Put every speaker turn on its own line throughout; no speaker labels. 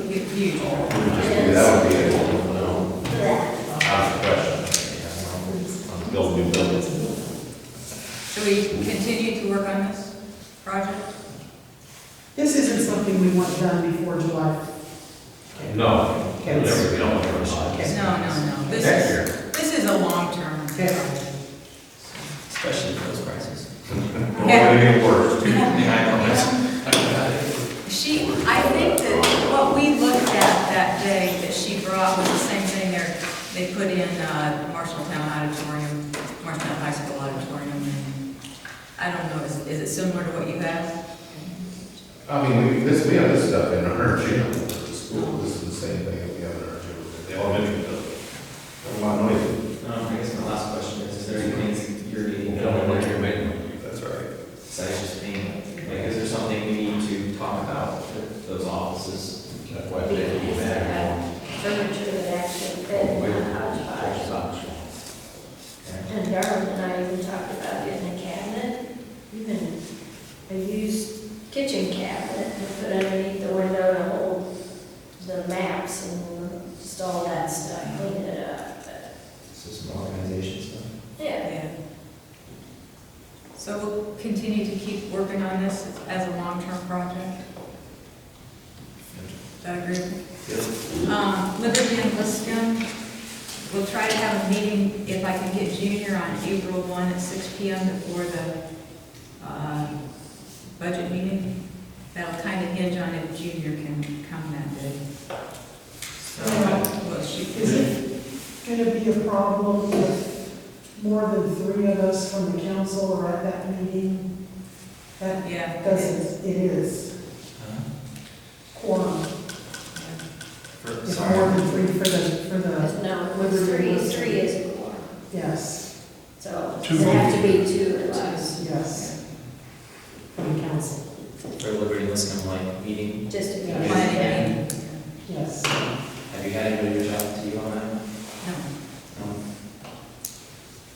people.
That would be a,
Ask a question. On building new buildings.
Should we continue to work on this project?
This isn't something we want done before July.
No, we
Okay.
never, we don't want to rush it.
No, no, no. This
next
is,
year.
this is a long-term.
Okay.
especially for those prices.
We're gonna get worse.
She, I think that what we looked at that day that she brought was the same thing there. They put in uh, Marshalltown Auditorium, Marshalltown High School Auditorium. and I don't know, is, is it similar to what you have?
I mean, we, this, we have this stuff in our gym, at the school, this is the same thing that we have in our gym, the elementary building. A lot of noise.
Um, I guess my last question is, is there any things you're
You
eating?
don't want to hear me.
That's right.
Besides just being, like, is there something we need to talk about with those offices?
That's why they need that.
furniture that actually fit in the hodgepodge. And Darren and I even talked about getting a cabinet, even a used kitchen cabinet to put underneath the window to hold the maps and just all that stuff, clean it up. but-
So some organization stuff?
Yeah,
Yeah. So we'll continue to keep working on this as a long-term project. Is that agreeable? Um, Liberty and Liscum, we'll try to have a meeting, if I can get Junior on April 1 at 6 PM before the uh, budget meeting. That'll kind of hinge on if Junior can come that day. So we'll
Is
shoot.
it gonna be a problem if more than three of us from the council are at that meeting? That
Yeah.
doesn't, it is
Uh-huh.
quorum.
For-
If more
Sorry.
than three for the, for the,
no, it was three, three is a quorum,
yes,
so it have to be two or less,
yes. From the council,
For Liberty Liscum, like, meeting,
just to be.
Planning meeting.
yes.
have you had anybody reach out to you on that? Um,
No.
No?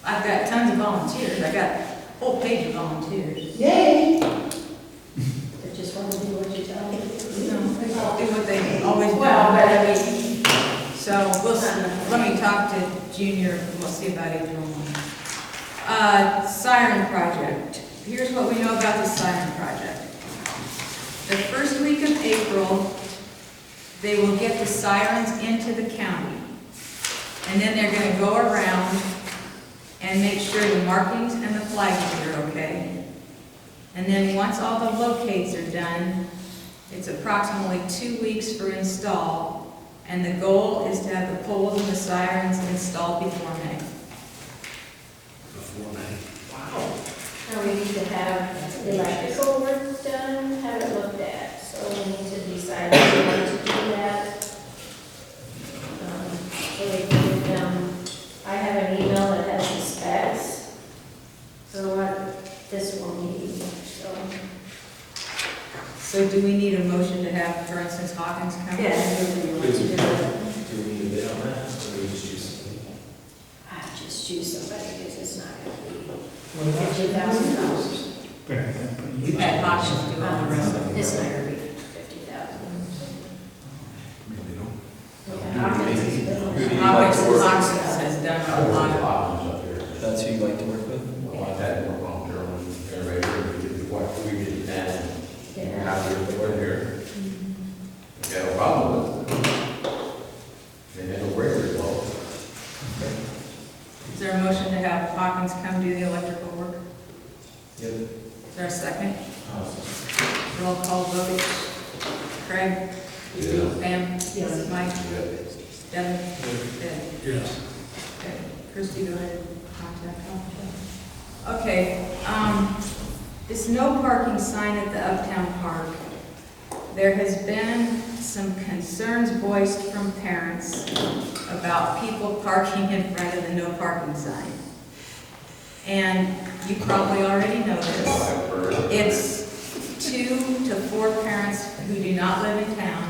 I've got tons of volunteers. I've got a whole page of volunteers.
Yay!
They just want to do what you tell them.
You know, they all do what they always do.
Well, but I mean,
So we'll, s- let me talk to Junior, and we'll see about April one. Uh, siren project, here's what we know about the siren project. The first week of April, they will get the sirens into the county. And then they're gonna go around and make sure the markings and the flags are okay. And then once all the locates are done, it's approximately two weeks for install, and the goal is to have the poles and the sirens installed before May.
Now we need to have the electrical work done, have it looked at, so we need to decide if we want to do that. Um, So we can, um, I have an email that has the specs, so what this will need, so.
So do we need a motion to have, for instance, Hawkins come?
Yes.
Do we need a bid on that, or do we just choose?
I just choose somebody, because it's not gonna be fifty thousand dollars.
We've had Hawkins do all the rest of
It's not gonna be fifty thousand.
it. Hawkins, Hawkins has done a lot of,
up here.
That's who you like to work with?
Well, I've had more on there when everybody heard we did what we did then.
Yeah.
Now we're over here. We got a problem with it. They never work very well.
is there a motion to have Hawkins come do the electrical work?
Yep.
Is there a second? Roll call vote. Craig?
Yeah.
Pam?
Yes.
Mike?
Yeah.
Devin? Yes. Okay, Christie, go ahead and contact Hawkins. Okay, um, this no parking sign at the Uptown Park. There has been some concerns voiced from parents about people parking in front of the no parking sign. And you probably already know this.
I've heard.
It's two to four parents who do not live in town